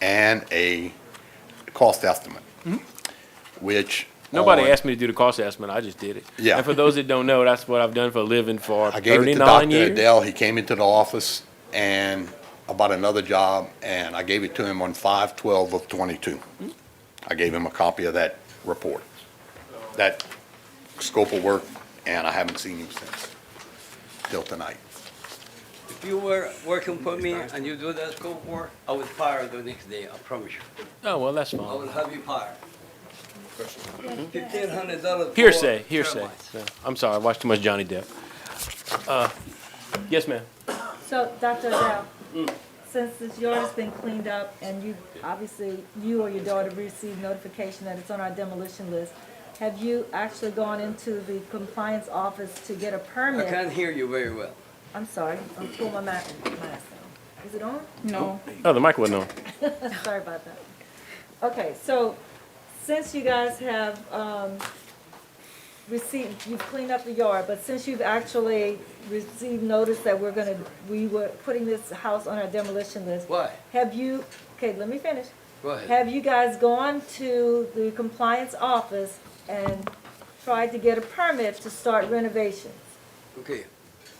and a cost estimate, which. Hmm? oh, Nobody on- asked me to do the cost estimate. I just did it. Yeah. And for those that don't know, that's what I've done for a living for I gave it to 39 Dr. years. Adele. He came into the office and about another job, and I gave it to him on five twelve of twenty-two. Hmm? I gave him a copy of that report, that scope of work, and I haven't seen him since, till tonight. If you were working for me and you do that scope work, I would fire the next day, I promise you. Oh, well, that's I fine. will have you fired. Fifteen hundred dollars. Hearsay, hearsay. No, I'm sorry, I watched too much Johnny Depp. Uh, Yes, ma'am. So, Dr. Adele, since this yard has been cleaned up and you, obviously, you or your daughter received notification that it's on our demolition list, have you actually gone into the compliance office to get a I permit? can't hear you very well. I'm sorry, I'm pulling my ma- mask down. Is it on? No. Oh, the mic wasn't on. Sorry about that. Okay, so since you guys have um, received, you've cleaned up the yard, but since you've actually received notice that we're gonna, we were putting this house on our demolition list. Why? Have you, okay, let me finish. Go ahead. Have you guys gone to the compliance office and tried to get a permit to start renovations? Okay.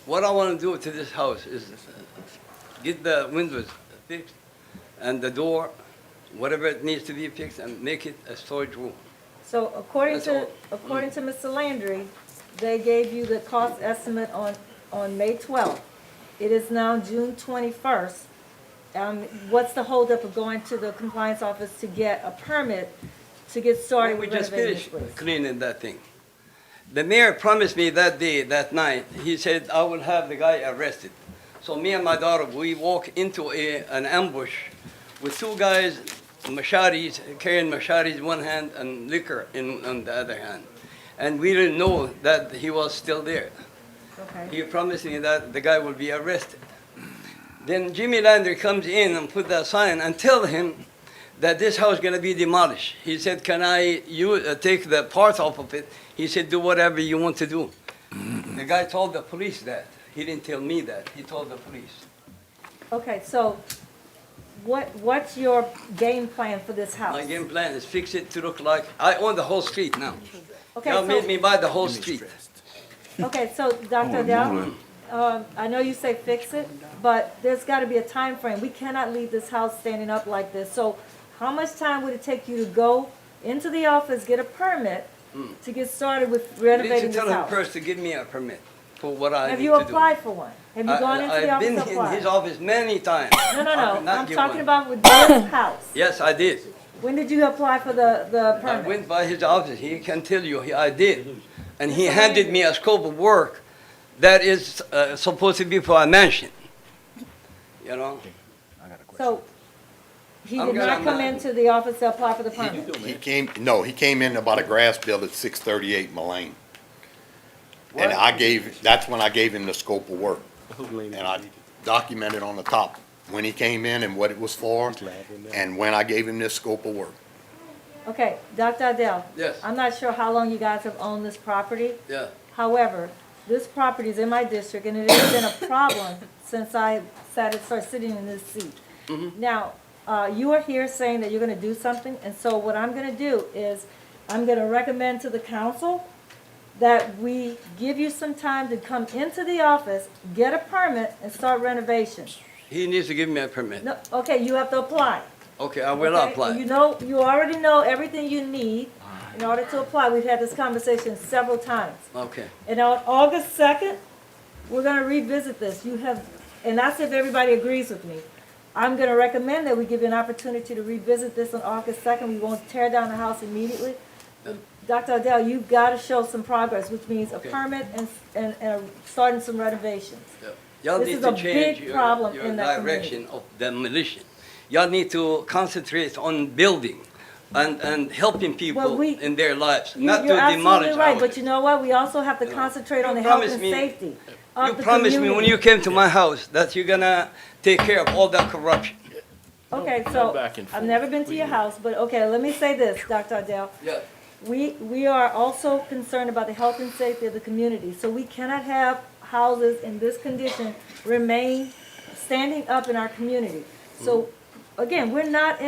What I wanna do to this house is uh, get the windows fixed and the door, whatever it needs to be fixed, and make it a storage room. So according That's to, all. according to Mr. Landry, they gave you the cost estimate on, on May twelfth. It is now June twenty-first. Um, what's the holdup of going to the compliance office to get a permit to get started We with just renovating this finished place? cleaning that thing. The mayor promised me that day, that night, he said, I will have the guy arrested. So me and my daughter, we walk into a, an ambush with two guys, machetes, carrying machetes in one hand and liquor in, on the other hand. And we didn't know that he was still there. Okay, He promised me that the guy will be arrested. Then Jimmy Lander comes in and put that sign and tell him that this house gonna be demolished. He said, "Can I you uh, take the part off of it?" He said, "Do whatever you want to do." the guy told the police that. He didn't tell me that. He told the police. okay, so what, what's your game plan for this house? My game plan is fix it to look like I own the whole street now. Okay, Y'all made so- me buy the whole street. Okay, so Dr. Adele, um, I know you say fix it, but there's gotta be a time frame. We cannot leave this house standing up like this. So how much time would it take you to go into the office, get a permit to get started with I need to renovating this Hmm. tell him house? first to give me a permit for what I Have need you to do. applied for one? Have you I- gone into the I've office been to in his apply? office many times. No, no, I could no, not I'm get talking one. about with this house. Yes, I did. When did you apply for the, the I permit? went by his office, he can tell you, he- I did. And he handed me a scope of work that is uh, supposed to be for a mansion. You know, So he I'm did gonna- not come into the office to apply for the permit? He came, no, he came in about a grass bill at six thirty-eight Mullane. And What? I gave, that's when I gave him the scope of work. And I documented on the top when he came in and what it was for, and when I gave him this scope of work. Okay, Dr. Adele? Yes. I'm not sure how long you guys have owned this property. yeah. However, this property is in my district and it has been a problem since I sat, started sitting in this seat. Mm-hmm. Now, uh, you are here saying that you're gonna do something, and so what I'm gonna do is, I'm gonna recommend to the council that we give you some time to come into the office, get a permit, and start renovation. He needs to give me a permit. No, okay, you have to apply. Okay, I will Okay, You apply. know, you already know everything you need in order to apply. We've had this conversation several times. Okay, And on August second, we're gonna revisit this. You have, and that's if everybody agrees with me. I'm gonna recommend that we give you an opportunity to revisit this on August second. We won't tear down the house immediately. Dr. Adele, you've gotta show some progress, which means a Okay. permit and, and, and starting some renovations. y'all This need is to a change big your problem your in that direction of demolition. Y'all need to concentrate on building and, and helping people we- in their lives, You- not to You're absolutely demolish right, but houses. you know what? We also have to concentrate on You the health promised and me- safety You of the community. promised me when you came to my house that you're gonna take care of all that corruption. Okay, Oh, Go so, back and I've forth, never been to your please. house, but okay, let me say this, Dr. Adele. Yeah. We, we are also concerned about the health and safety of the community, so we cannot have houses in this condition remain standing up in our community. So again, we're not in